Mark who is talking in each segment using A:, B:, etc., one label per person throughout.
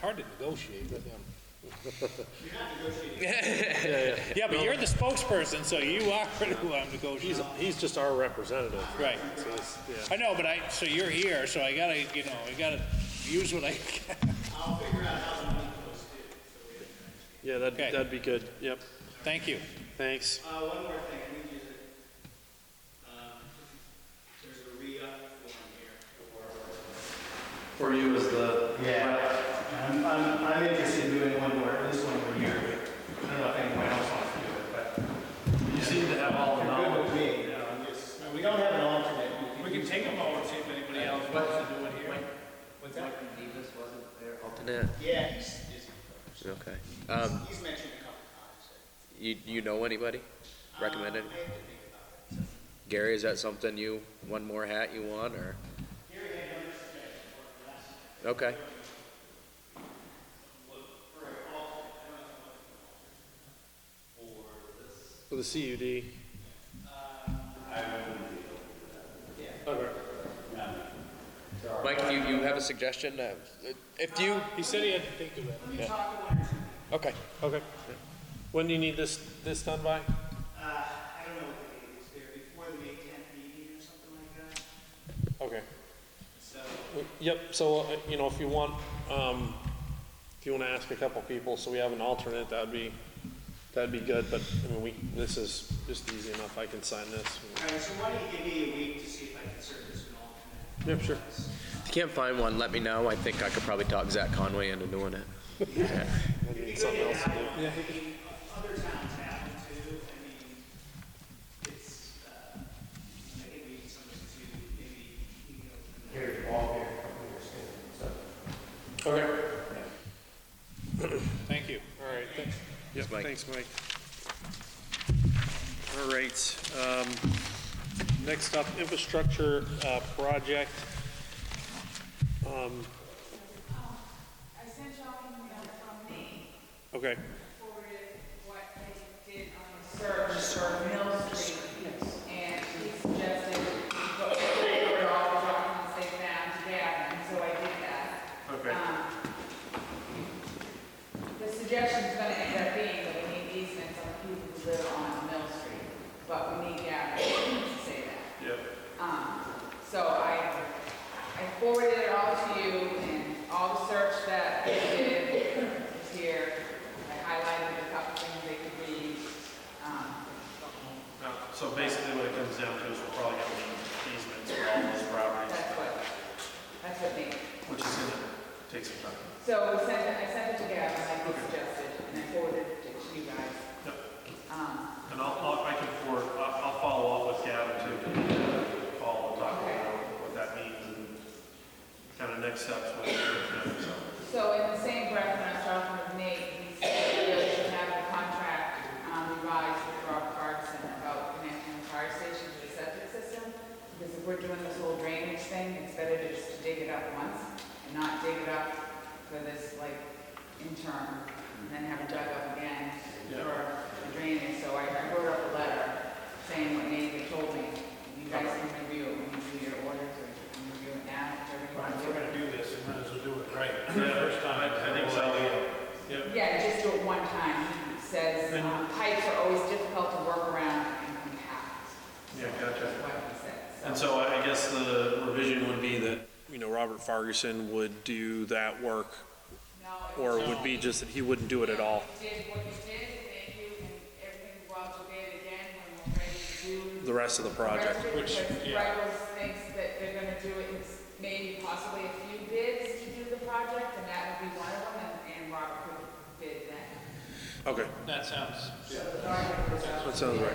A: hard to negotiate with him. Yeah, but you're the spokesperson, so you are who I'm
B: He's,
A: negotiating.
B: he's just our representative.
A: Right.
B: So it's- yeah.
A: I know, but I, so you're here, so I gotta, you know, I gotta use what I can.
B: Yeah, that'd,
A: Okay.
B: that'd be good. Yep,
A: Thank you.
B: thanks.
C: Uh, one more thing, I need you to, um, there's a re-up form here for.
D: For you as the.
C: Yeah, I'm, I'm, I'm interested in doing one more, at least one more year. I don't know if anyone else wants to do it, but.
D: You seem to have all the
C: You're good
D: knowledge.
C: with me, you know, I'm just, we don't have an alternate.
E: We can take them all and see if anybody else wants to do it here.
C: What's that? Yeah, he's, he's,
F: Okay. Um,
C: he's mentioned a couple times.
F: you, you know anybody? Recommend
C: Um,
F: any-
C: I have to think about it.
F: Gary, is that something you, one more hat you want, or? Okay.
B: For the CUD. Okay.
F: Mike, if you, you have a suggestion, uh, if you,
B: He said he had to think of it.
F: okay.
B: Okay. When do you need this, this done by?
C: Uh, I don't know what the date is there, before the May tenth meeting or something like that,
B: Okay.
C: so.
B: Yep, so, uh, you know, if you want, um, if you wanna ask a couple people, so we have an alternate, that'd be, that'd be good, but, I mean, we, this is just easy enough, I can sign this.
C: All right, so why don't you give me a week to see if I can serve as an alternate?
B: Yep, sure.
F: If you can't find one, let me know. I think I could probably talk Zach Conway into doing it.
B: I need something else to do.
C: I mean, other towns have them too, I mean, it's, uh, I think we need somebody to maybe, you know. Here, Paul here,
B: Okay.
A: Thank you.
B: All right, thanks. Yep,
F: Mike.
B: thanks, Mike. All right, um, next up, infrastructure, uh, project. Um,
G: I sent y'all an email from me,
B: okay,
G: forwarded what they did on the search for Mill Street. And he suggested, but they were all the documents they found together, and so I did that.
B: Okay.
G: Um, The suggestion's gonna end up being that we need easements on people who live on Mill Street, but we need that to say that.
B: yep,
G: Um, So I, I forwarded it all to you and all the search that they did is here. I highlighted a couple things they could read. Um,
D: Uh, So basically what it comes down to is we're probably gonna need easements for all those properties,
G: That's what, that's what they,
D: which is gonna take some time.
G: so we sent, it- I sent it to Gavin, like he suggested, and I forwarded it to you guys.
D: Yep.
G: Um,
D: And I'll, I'll- I can forward, I'll, I'll follow up with Gavin too, follow, talk about what that means and kind of next steps with him, so.
G: So in the same breath, when I was talking with Nate, he said we really should have a contract um, revised with Rob Clarkson about connecting the fire station to the septic system. Because if we're doing this whole drainage thing, it's better to just dig it up once and not dig it up for this like interim and then have it dug up again for the drainage. So I I wrote up a letter saying what Nate had told me. You guys can review it when you do your orders or you can review it now, whichever you want to do.
E: do this, we might as well do it right.
D: Yeah, I I think so,
G: Yeah, just do it one time. He Says um, pipes are always difficult to work around and compact,
D: yeah, gotcha.
G: is what he said.
D: And so I I guess the revision would be that
B: you know, Robert Farguson would do that work,
G: No,
B: or it would be just that he wouldn't do it at all.
G: if you did what you did, thank you, and everything will go date again when we're ready to do.
B: The rest of the project,
G: Which, yeah. thinks that they're gonna do it, in s- maybe possibly a few bids to do the project, and that would be one of them, and, and Robert could bid then.
B: okay,
E: That sounds,
B: that sounds right.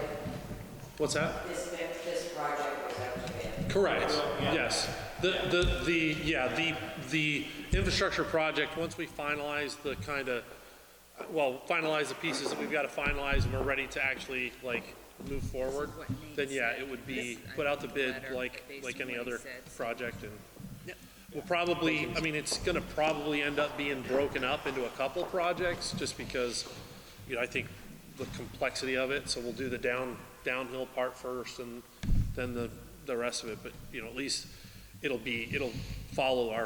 B: What's that?
H: This, this project was out to bid.
B: Correct, yes. The, the, the, yeah, the, the infrastructure project, once we finalize the kind of, well, finalize the pieces that we've got to finalize and we're ready to actually, like, move forward,
I: what Nate
B: then yeah, it
I: said.
B: would be
I: This- I
B: put out the
I: wrote the
B: bid
I: letter,
B: like,
I: but based
B: like
I: on
B: any
I: what he
B: other
I: said, so-
B: project and we'll probably, I mean, it's going to probably end up being broken up into a couple projects just because, you know, I think the complexity of it, so we'll do the down, downhill part first and then the, the rest of it, but, you know, at least it'll be, it'll follow our